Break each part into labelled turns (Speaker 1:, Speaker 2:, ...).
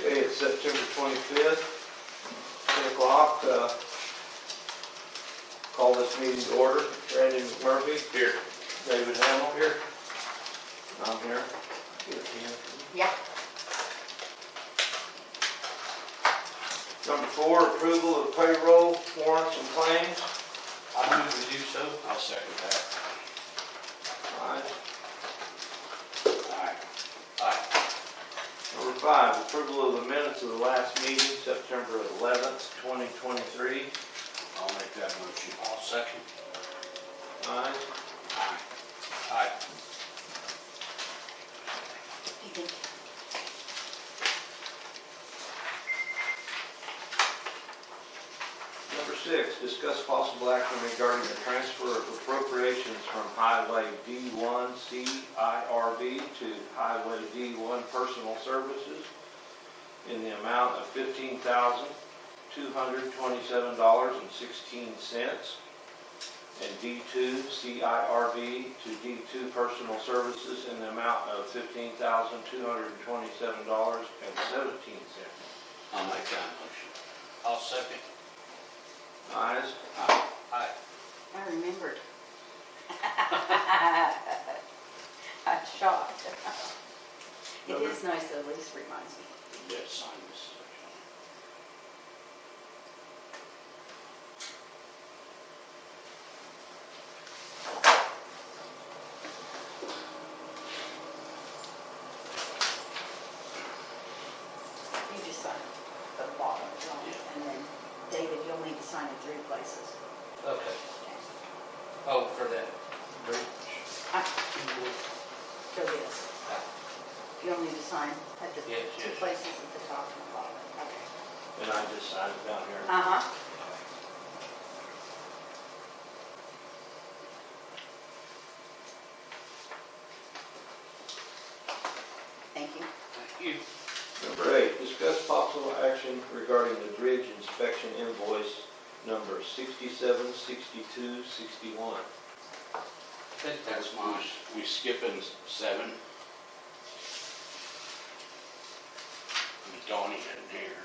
Speaker 1: Okay, it's September twenty-fifth, ten o'clock, uh, call this meeting to order. Brandon Murphy,
Speaker 2: Here.
Speaker 1: David Hamel here. I'm here. Here, Ken.
Speaker 3: Yeah.
Speaker 1: Number four, approval of payroll warrants and claims.
Speaker 2: I move to do so. I'll second that.
Speaker 1: Alright.
Speaker 2: Aye. Aye.
Speaker 1: Number five, approval of the minutes of the last meeting, September eleventh, twenty twenty-three.
Speaker 2: I'll make that motion. I'll second.
Speaker 1: Aye.
Speaker 2: Aye. Aye.
Speaker 1: Number six, discuss possible action regarding the transfer of appropriations from Highway D1 CIRB to Highway D1 Personal Services in the amount of $15,227.16 and D2 CIRB to D2 Personal Services in the amount of $15,227.17.
Speaker 2: I'll make that motion. I'll second.
Speaker 1: Ayes?
Speaker 2: Aye. Aye.
Speaker 3: I remembered. I'm shocked. It is nice that at least reminds me.
Speaker 2: Yes, sign this.
Speaker 3: You just sign the bottom, don't you? and then David, you'll need to sign in three places.
Speaker 4: Okay, oh, for that.
Speaker 3: So this. You'll need to sign at the
Speaker 4: Yes,
Speaker 3: two
Speaker 4: yes.
Speaker 3: places at the top and the bottom. Okay.
Speaker 1: And I just signed it down here.
Speaker 3: Uh-huh. Thank you.
Speaker 2: Thank you.
Speaker 1: Number eight, discuss possible action regarding the bridge inspection invoice number sixty-seven, sixty-two, sixty-one.
Speaker 4: That,
Speaker 2: That's mine. We skipping seven? Donnie in here.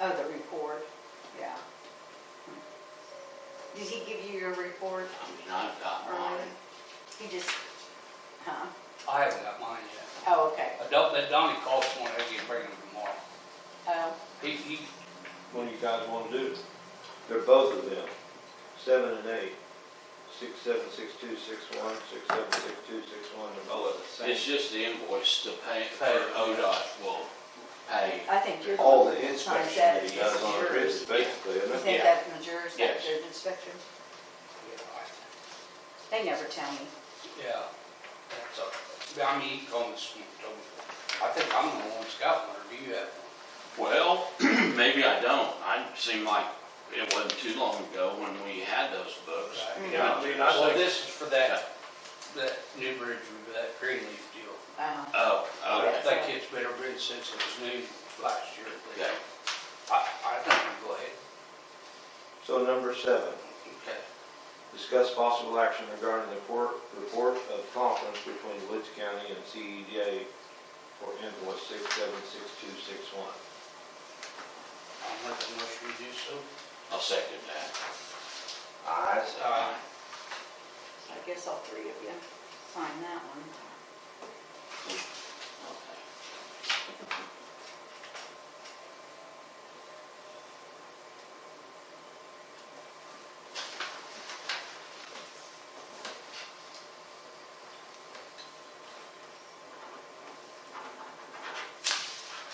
Speaker 3: Oh, the report, yeah. Did he give you your report?
Speaker 2: I mean, I've got mine.
Speaker 3: He just, huh?
Speaker 4: I haven't got mine yet.
Speaker 3: Oh, okay.
Speaker 4: I don't, that Donnie called this morning, he can bring them tomorrow.
Speaker 3: Oh,
Speaker 4: He, he,
Speaker 1: What do you guys want to do? They're both of them, seven and eight. Six, seven, six, two, six, one, six, seven, six, two, six, one, they're both the
Speaker 2: It's
Speaker 1: same.
Speaker 2: just the invoice to pay, for ODOT will pay.
Speaker 3: I think you're.
Speaker 1: All the
Speaker 3: one that signs
Speaker 1: inspection
Speaker 3: that
Speaker 1: that he does on the bridge is basically,
Speaker 3: You
Speaker 1: isn't it?
Speaker 3: think
Speaker 2: Yeah.
Speaker 3: that's Majerus,
Speaker 2: Yes.
Speaker 3: that's their inspection? They never tell me.
Speaker 4: yeah, that's a, I mean, he called this morning, told me. I think I'm the one that's got one, or do you have one?
Speaker 2: Well, maybe I don't. I seem like it wasn't too long ago when we had those books.
Speaker 4: Right.
Speaker 1: Yeah, I mean, I
Speaker 4: Well,
Speaker 1: think-
Speaker 4: this is for that, that new bridge, with that green leaf deal.
Speaker 3: Uh,
Speaker 2: Oh,
Speaker 4: I
Speaker 2: okay,
Speaker 3: Yes.
Speaker 4: think it's been a bridge since it was new last year,
Speaker 2: okay.
Speaker 4: but I, I think we go ahead.
Speaker 1: So number seven,
Speaker 4: Okay.
Speaker 1: discuss possible action regarding the report, report of conference between Woods County and CEDA for invoice six, seven, six, two, six, one.
Speaker 4: I'll make the motion to do so.
Speaker 2: I'll second that.
Speaker 1: Ayes.
Speaker 4: Uh,
Speaker 3: so I guess all three of you sign that one.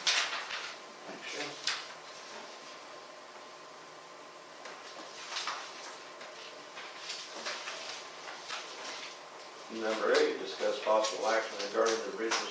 Speaker 4: Sure.
Speaker 1: Number eight, discuss possible action regarding the bridge